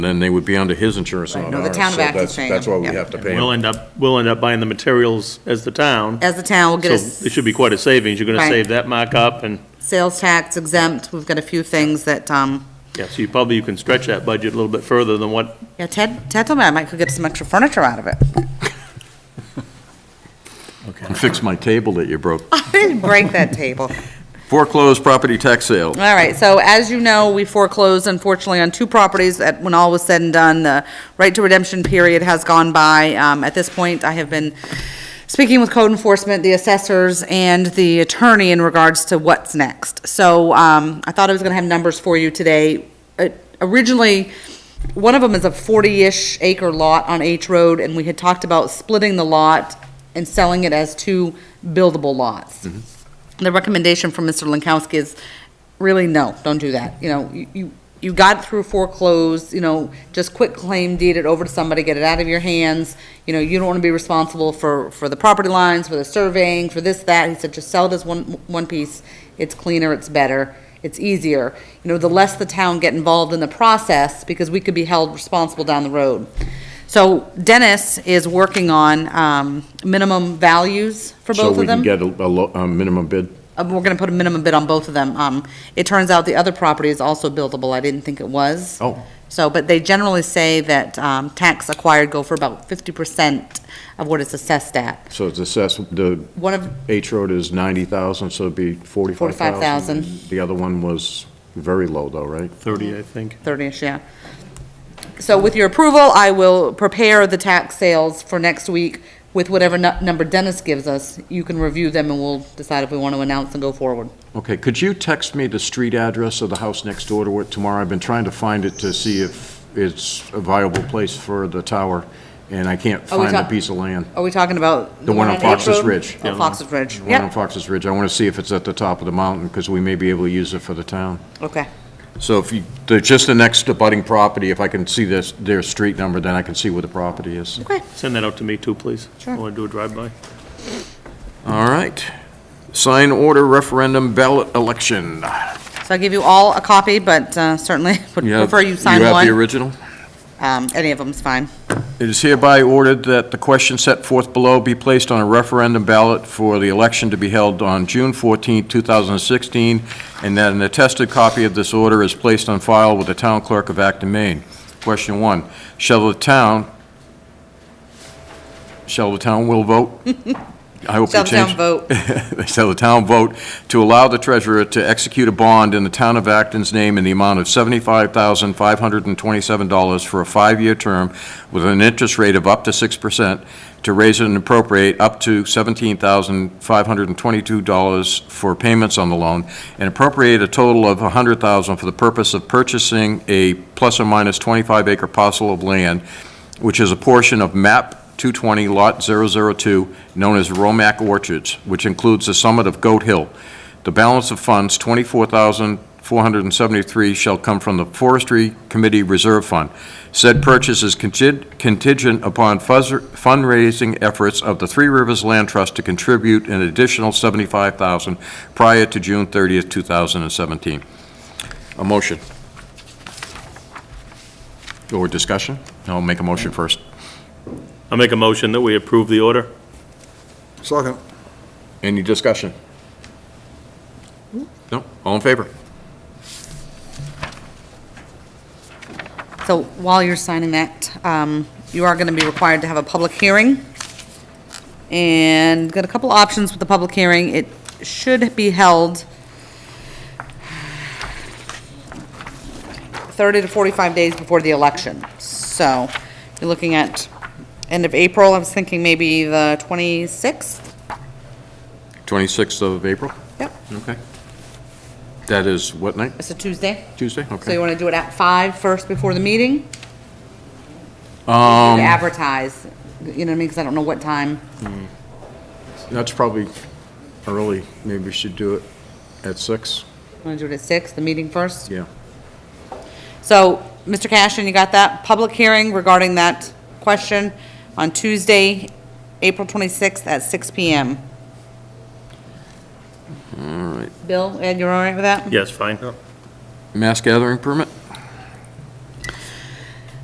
then they would be under his insurance, Right, not no, the ours, town of so Acton's that's- paying That's why them, we yeah. have to pay We'll them. end up, we'll end up buying the materials as the town. As the town, we'll So get a it s- should be quite a savings. You're gonna Right. save that markup and, sales tax exempt, we've got a few things that, um, yeah, so you probably, you can stretch that budget a little bit further than what, yeah, Ted, Ted told me I might could get some extra furniture out of it. And fix my table that you broke. I didn't break that table. Foreclosed property tax sale. All right, so as you know, we foreclosed unfortunately on two properties that, when all was said and done, the right to redemption period has gone by. Um, at this point, I have been speaking with code enforcement, the assessors, and the attorney in regards to what's next. So, um, I thought I was gonna have numbers for you today. Uh, Originally, one of them is a forty-ish acre lot on H Road, and we had talked about splitting the lot and selling it as two buildable lots the recommendation from Mr. Lankowski is really no, don't do that. You know, you- you, you got through foreclosed, you know, just quit claim deed it over to somebody, get it out of your hands. You know, you don't want to be responsible for, for the property lines, for the surveying, for this, that. He said, just sell it as one, one piece. It's cleaner, it's better, it's easier. You know, the less the town get involved in the process, because we could be held responsible down the road. So Dennis is working on, um, minimum values for both So of them. we can get a, a lo- a minimum bid. Uh, we're gonna put a minimum bid on both of them. Um, it turns out the other property is also buildable. I didn't think it was. Oh. So, but they generally say that, um, tax acquired go for about fifty percent of what it's assessed at. So it's assessed, the One of, H Road is 90,000, so it'd be 45,000. 45,000. The other one was very low though, right? 30, I think. 30-ish, yeah. So with your approval, I will prepare the tax sales for next week with whatever nu- number Dennis gives us. You can review them and we'll decide if we want to announce and go forward. Okay, could you text me the street address of the house next door to it tomorrow? I've been trying to find it to see if it's a viable place for the tower, and I can't Are Oh, we find the talk- piece of land. Are we talking about? The one on H Fox's Road? Ridge. Oh, Fox's Ridge, The One on yep, Fox's Ridge. I want to see if it's at the top of the mountain, because we may be able to use it for the town. okay. So if you, they're just the next abutting property, if I can see this, their street number, then I can see where the property is. Send that out to me too, please. Sure. I wanna do a drive-by. All right. Sign order referendum ballot election. So I'll give you all a copy, but uh, certainly would have- prefer you sign You have the one. original? Um, Any of them's fine. It is hereby ordered that the question set forth below be placed on a referendum ballot for the election to be held on June 14, 2016, and that an attested copy of this order is placed on file with the town clerk of Acton, Maine. Question one, shall the town, shall the town will vote? I hope you Shall the town change. vote? Shall the town vote to allow the treasurer to execute a bond in the town of Acton's name in the amount of $75,527 for a five-year term with an interest rate of up to 6%, to raise and appropriate up to $17,522 for payments on the loan, and appropriate a total of $100,000 for the purpose of purchasing a plus or minus 25-acre parcel of land, which is a portion of map 220, Lot 002, known as Romac Orchards, which includes the summit of Goat Hill. The balance of funds, 24473 shall come from the Forestry Committee Reserve Fund. Said purchase is conti- contingent upon fuzz- fundraising efforts of the Three Rivers Land Trust to contribute an additional 75000 prior to June 30th, 2017. A motion. Or discussion? No, make a motion first. I'll make a motion that we approve the order. Mm-hmm. Second. Any discussion? No, all in favor? So while you're signing that, um, you are going to be required to have a public hearing. And got a couple options with the public hearing. It should be held 30 to 45 days before the election. So you're looking at end of April. I was thinking maybe the 26th? 26th of April? Yep. Okay. That is what night? It's a Tuesday. Tuesday? So you Okay. want to do it at five first before the meeting? To Um, Advertise, you know what I mean, because I don't know what time. that's probably early. Maybe we should do it at six. Want to do it at six, the meeting first? Yeah. So, Mr. Cashin, you got that? Public hearing regarding that question on Tuesday, April 26th at six PM. All right. Bill, Ed, you're all right with that? Yes, fine. Mass gathering permit?